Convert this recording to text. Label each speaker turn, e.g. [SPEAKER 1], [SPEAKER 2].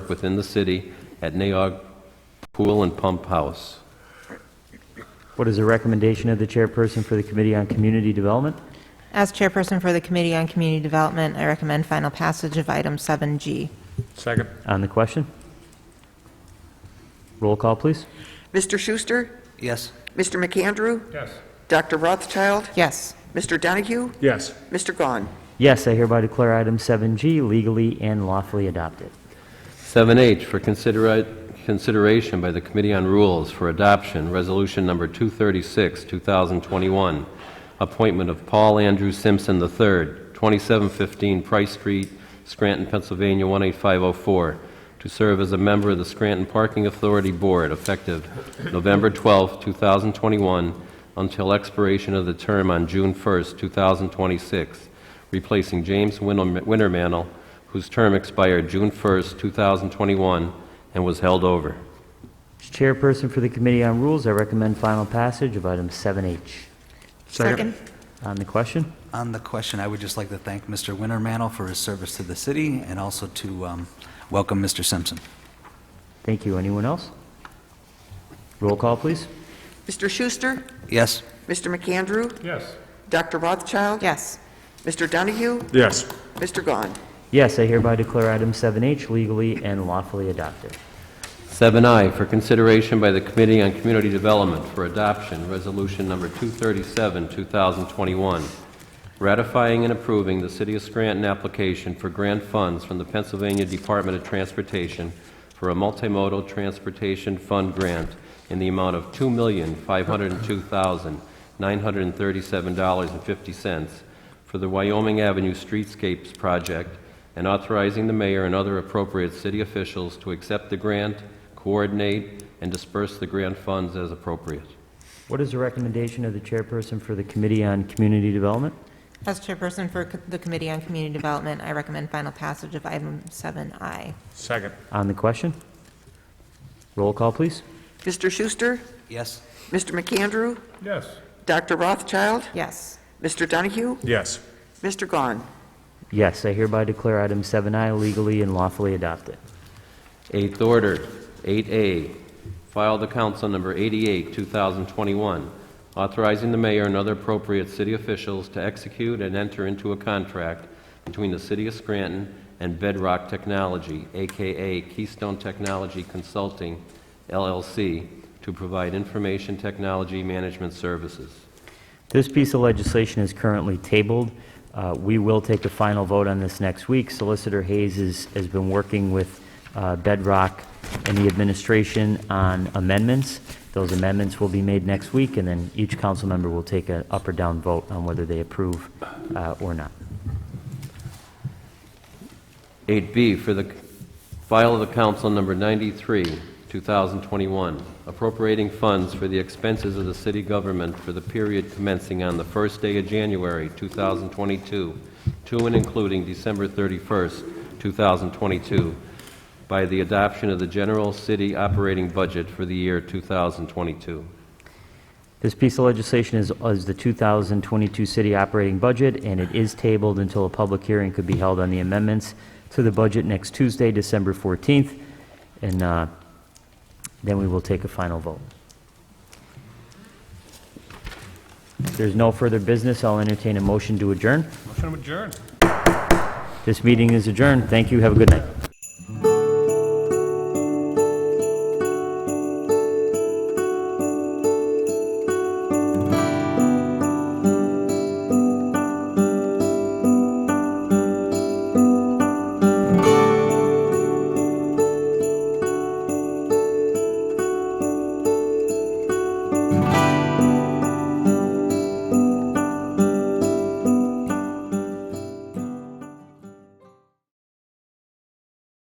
[SPEAKER 1] within the city at Naog Pool and Pump House.
[SPEAKER 2] What is the recommendation of the chairperson for the Committee on Community Development?
[SPEAKER 3] As chairperson for the Committee on Community Development, I recommend final passage of item 7G.
[SPEAKER 4] Second.
[SPEAKER 2] On the question? Roll call, please.
[SPEAKER 5] Mr. Schuster?
[SPEAKER 6] yes,
[SPEAKER 5] Mr. McAndrew?
[SPEAKER 4] Yes.
[SPEAKER 5] Dr. Rothschild?
[SPEAKER 3] Yes.
[SPEAKER 5] Mr. Donahue?
[SPEAKER 4] Yes.
[SPEAKER 5] Mr. Gahn?
[SPEAKER 2] Yes, I hereby declare item 7G legally and lawfully adopted.
[SPEAKER 1] 7H for considera- consideration by the Committee on Rules for Adoption, Resolution Number 236, 2021, appointment of Paul Andrew Simpson III, 2715 Price Street, Scranton, Pennsylvania 18504, to serve as a member of the Scranton Parking Authority Board effective November 12, 2021, until expiration of the term on June 1, 2026, replacing James Winnem- Wintermantle, whose term expired June 1st, 2021, and was held over.
[SPEAKER 2] As chairperson for the Committee on Rules, I recommend final passage of item 7H.
[SPEAKER 3] Second.
[SPEAKER 2] On the question?
[SPEAKER 6] on the question, I would just like to thank Mr. Wintermantle for his service to the city and also to um, welcome Mr. Simpson.
[SPEAKER 2] Thank you. Anyone else? Roll call, please.
[SPEAKER 5] Mr. Schuster?
[SPEAKER 6] Yes,
[SPEAKER 5] Mr. McAndrew?
[SPEAKER 4] Yes.
[SPEAKER 5] Dr. Rothschild?
[SPEAKER 3] Yes.
[SPEAKER 5] Mr. Donahue?
[SPEAKER 4] Yes.
[SPEAKER 5] Mr. Gahn?
[SPEAKER 2] Yes, I hereby declare item 7H legally and lawfully adopted.
[SPEAKER 1] 7I for consideration by the Committee on Community Development for Adoption, Resolution Number 237, 2021, ratifying and approving the City of Scranton application for grant funds from the Pennsylvania Department of Transportation for a multimodal transportation fund grant in the amount of $2,502,937.50 for the Wyoming Avenue Streetscapes Project and authorizing the mayor and other appropriate city officials to accept the grant, coordinate, and disperse the grant funds as appropriate.
[SPEAKER 2] What is the recommendation of the chairperson for the Committee on Community Development?
[SPEAKER 3] As chairperson for co- the Committee on Community Development, I recommend final passage of item 7I.
[SPEAKER 4] Second.
[SPEAKER 2] On the question? Roll call, please.
[SPEAKER 5] Mr. Schuster?
[SPEAKER 6] yes,
[SPEAKER 5] Mr. McAndrew?
[SPEAKER 4] Yes.
[SPEAKER 5] Dr. Rothschild?
[SPEAKER 3] Yes.
[SPEAKER 5] Mr. Donahue?
[SPEAKER 4] Yes.
[SPEAKER 5] Mr. Gahn?
[SPEAKER 2] Yes, I hereby declare item 7I legally and lawfully adopted.
[SPEAKER 1] Eighth order, 8A, filed to council number 88, 2021, authorizing the mayor and other appropriate city officials to execute and enter into a contract between the city of Scranton and Bedrock Technology, AKA Keystone Technology Consulting, LLC, to provide information technology management services.
[SPEAKER 2] This piece of legislation is currently tabled. Uh, We will take a final vote on this next week. Solicitor Hayes is- has been working with uh, Bedrock and the administration on amendments. Those amendments will be made next week, and then each council member will take an up or down vote on whether they approve uh, or not.
[SPEAKER 1] 8B for the file of the council number 93, 2021, appropriating funds for the expenses of the city government for the period commencing on the first day of January 2022 to and including December 31st, 2022, by the adoption of the general city operating budget for the year 2022.
[SPEAKER 2] This piece of legislation is, is the 2022 city operating budget, and it is tabled until a public hearing could be held on the amendments to the budget next Tuesday, December 14th, and uh, then we will take a final vote. If there's no further business, I'll entertain a motion to adjourn.
[SPEAKER 4] Motion to adjourn.
[SPEAKER 2] This meeting is adjourned. Thank you. Have a good night.